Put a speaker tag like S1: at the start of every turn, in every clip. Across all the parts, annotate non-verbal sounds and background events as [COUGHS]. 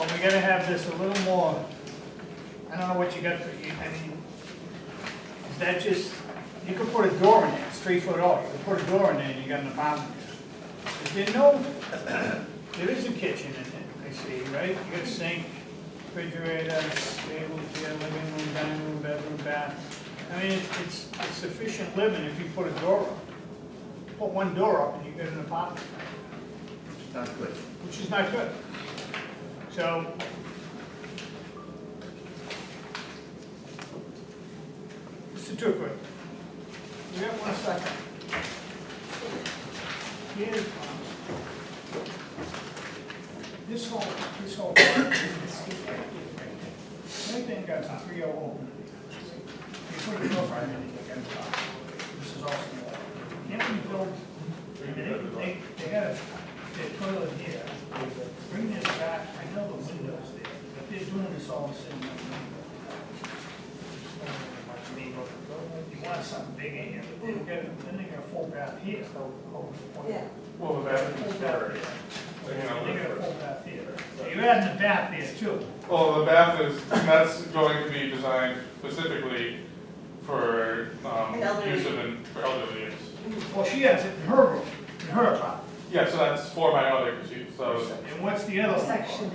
S1: we gotta have this a little more, I don't know what you got for, you- I mean, is that just, you could put a door in there, it's three foot off, you could put a door in there and you got an apartment. Is there no, [COUGHS] there is a kitchen in it, I see, right? You got sink, refrigerator, stable, chair, living room, dining room, bedroom, bath. I mean, it's- it's, it's sufficient living if you put a door up. Put one door up and you get an apartment
S2: It's not good.
S1: which is not good. So. Mr. Tukrow, we have one second. Here's, this whole, this whole, anything got a three oh one. You put a door frame in it, you got a problem. This is also. Then we build, they, they had a, their toilet here, bring this back, I know the window's there, but they're doing this all sitting in the window. You want something bigger here, but then you got, then they got a full bath here, so. oh, oh.
S3: Yeah.
S4: Well, the bathroom's better,
S1: They
S4: yeah. You know,
S1: got a
S4: the-
S1: full bath here, so you're adding a bath there too.
S4: Well, the bath is, that's going to be designed specifically for, um,
S3: Elderly.
S4: use of, an- for elderly use.
S1: Well, she has it in her room, in her apartment,
S4: Yeah, so that's four by other, she, so,
S1: and what's the other one?
S3: section.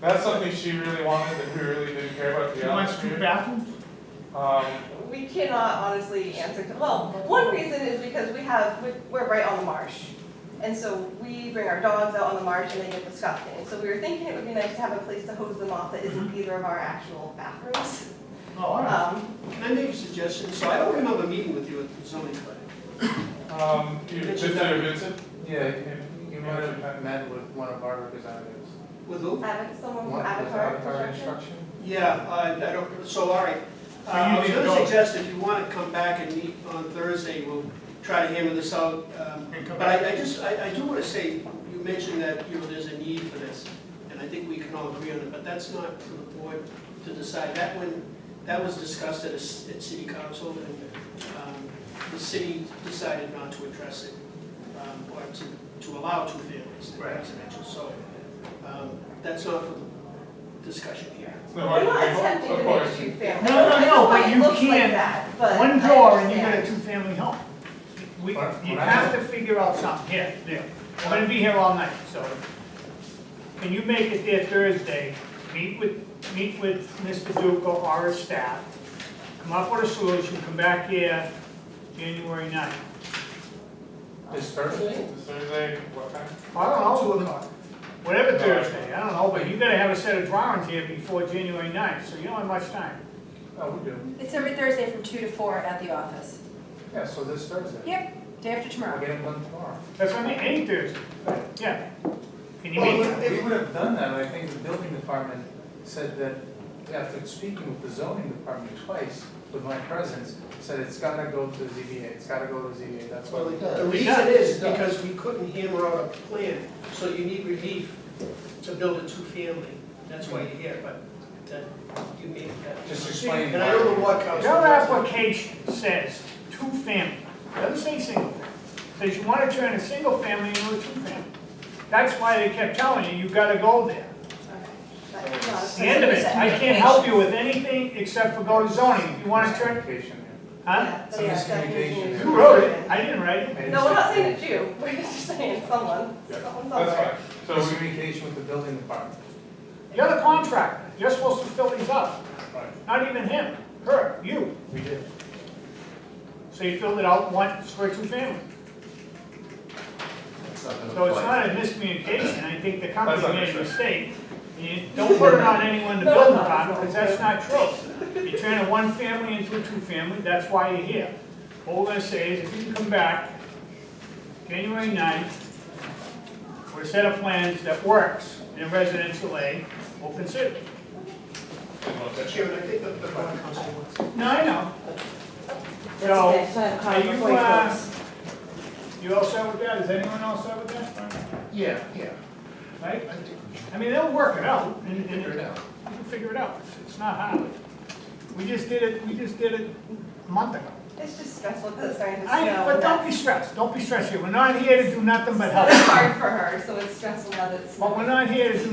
S4: that's something she really wanted, that we really didn't care about, to
S1: She
S4: be
S1: wants
S4: honest
S1: two
S4: with you.
S1: bathrooms?
S4: Um,
S3: We cannot honestly answer, to- well, one reason is because we have, we- we're right on the marsh. And so we bring our dogs out on the marsh and they get disgusting. So we were thinking it would be nice to have a place to hose them off that isn't either of our actual bathrooms.
S1: Oh, Mm-hmm. all right.
S3: Um,
S5: Can I make a suggestion? So I don't remember meeting with you at the zoning planning.
S4: um, you, Vincent, or Vincent?
S6: Yeah, you- you might have met with one of our representatives.
S5: With who?
S3: Ava- someone from
S6: One- was
S3: Avatar
S6: Avatar
S3: Construction.
S5: Yeah, I, I don't, so all right. Uh,
S1: Well, you
S5: I was
S1: need to
S5: gonna
S1: go.
S5: suggest if you wanna come back and meet on Thursday, we'll try to hammer this out. um,
S1: And come
S5: But I, I just, I, I do wanna say, you mentioned that, you know, there's a need for this, and I think we can all agree on it, but that's not for the board to decide. That one, that was discussed at a, s- at city council, and, um, the city decided not to address it, um, or to, to allow two families in
S1: Right.
S5: residential, so, um, that's not for the discussion here.
S4: No,
S3: We're not
S4: of
S3: attempting to
S4: course.
S3: make two families.
S1: No, no,
S3: I
S1: no,
S3: know why
S1: but
S3: it
S1: you
S3: looks like
S1: can't-
S3: that, but
S1: One
S3: I
S1: door and you got
S3: understand.
S1: a two-family home. We,
S6: But- but
S1: you
S6: I
S1: have
S6: know-
S1: to figure out something, yeah, yeah. I'm gonna be here all night, so. Can you make it there Thursday, meet with, meet with Mr. Duca or his staff, come up with a solution, come back here January ninth.
S6: This Thursday?
S4: This Thursday, what time?
S1: I don't know, we'll- whatever Thursday, I don't know, but you gotta have a set of drawings here before January ninth, so you don't have much time.
S6: Oh, we do.
S7: It's every Thursday from two to four at the office.
S6: Yeah, so this Thursday.
S7: Yep, day after
S6: We're
S7: tomorrow.
S6: getting one tomorrow.
S1: That's what I mean, any Thursday, yeah. Can you
S6: Well,
S1: meet?
S6: if we would have done that, I think the building department said that, after speaking with the zoning department twice, with my presence, said it's gotta go to ZBA, it's gotta go to ZBA, that's why.
S5: Well,
S6: we-
S5: the reason is because we couldn't hammer out a plan, so you need relief to build a two-family. That's why you're here, but that, you made that.
S6: Just explain
S5: And I don't know
S6: why.
S5: what council.
S1: Your application says two family, doesn't say single family. Says you wanna turn a single family into a two family. That's why they kept telling you, you gotta go there.
S3: But, you know,
S1: It's The end of it, I can't help you with anything except for go to zoning, if you wanna turn,
S6: Application,
S1: huh?
S3: yeah,
S6: Some
S3: that's- that's
S6: miscommunication
S3: usually-
S6: there.
S1: Who wrote it? I didn't write
S6: yeah.
S1: it.
S6: I
S3: No, we're not
S6: understand.
S3: saying it's you, [LAUGHS] we're just saying someone,
S4: Yeah,
S3: someone
S4: That's
S3: somewhere.
S4: fine. So we,
S6: Communication with the building department.
S1: You're the contractor, you're supposed to fill these up. Not even him, her, you.
S6: We did.
S1: So you filled it out once for two family. So it's not a miscommunication, I think the company
S4: That's not
S1: made a
S4: true.
S1: mistake. You Don't put it on anyone to
S3: No,
S1: build
S3: no, no,
S1: upon,
S3: it's not
S1: because that's not true. You're turning one family into a two-family, that's why you're here. What we're gonna say is, if you can come back January 9th, with a set of plans that works in residential A, we'll consider. it.
S5: Chairman, I think that the borough council wants.
S1: No, I know.
S7: That's okay,
S1: So,
S7: so I have a
S1: are
S7: card
S1: you,
S7: before you
S1: uh,
S7: close.
S1: you all set with that? Is anyone all set with that?
S6: Yeah, yeah.
S1: Right? I mean, they'll work it out, and, and
S6: Figure it out.
S1: You can figure it out, It's- it's not hard. We just did it, we just did it a month ago.
S3: It's just stressful because it's starting to snow.
S1: I, but
S3: and
S1: don't be
S3: that's-
S1: stressed, don't be stressed here, we're not here to do nothing but
S3: It's
S1: help.
S3: hard for her, so it's stressful now that it's.
S1: But we're not here to do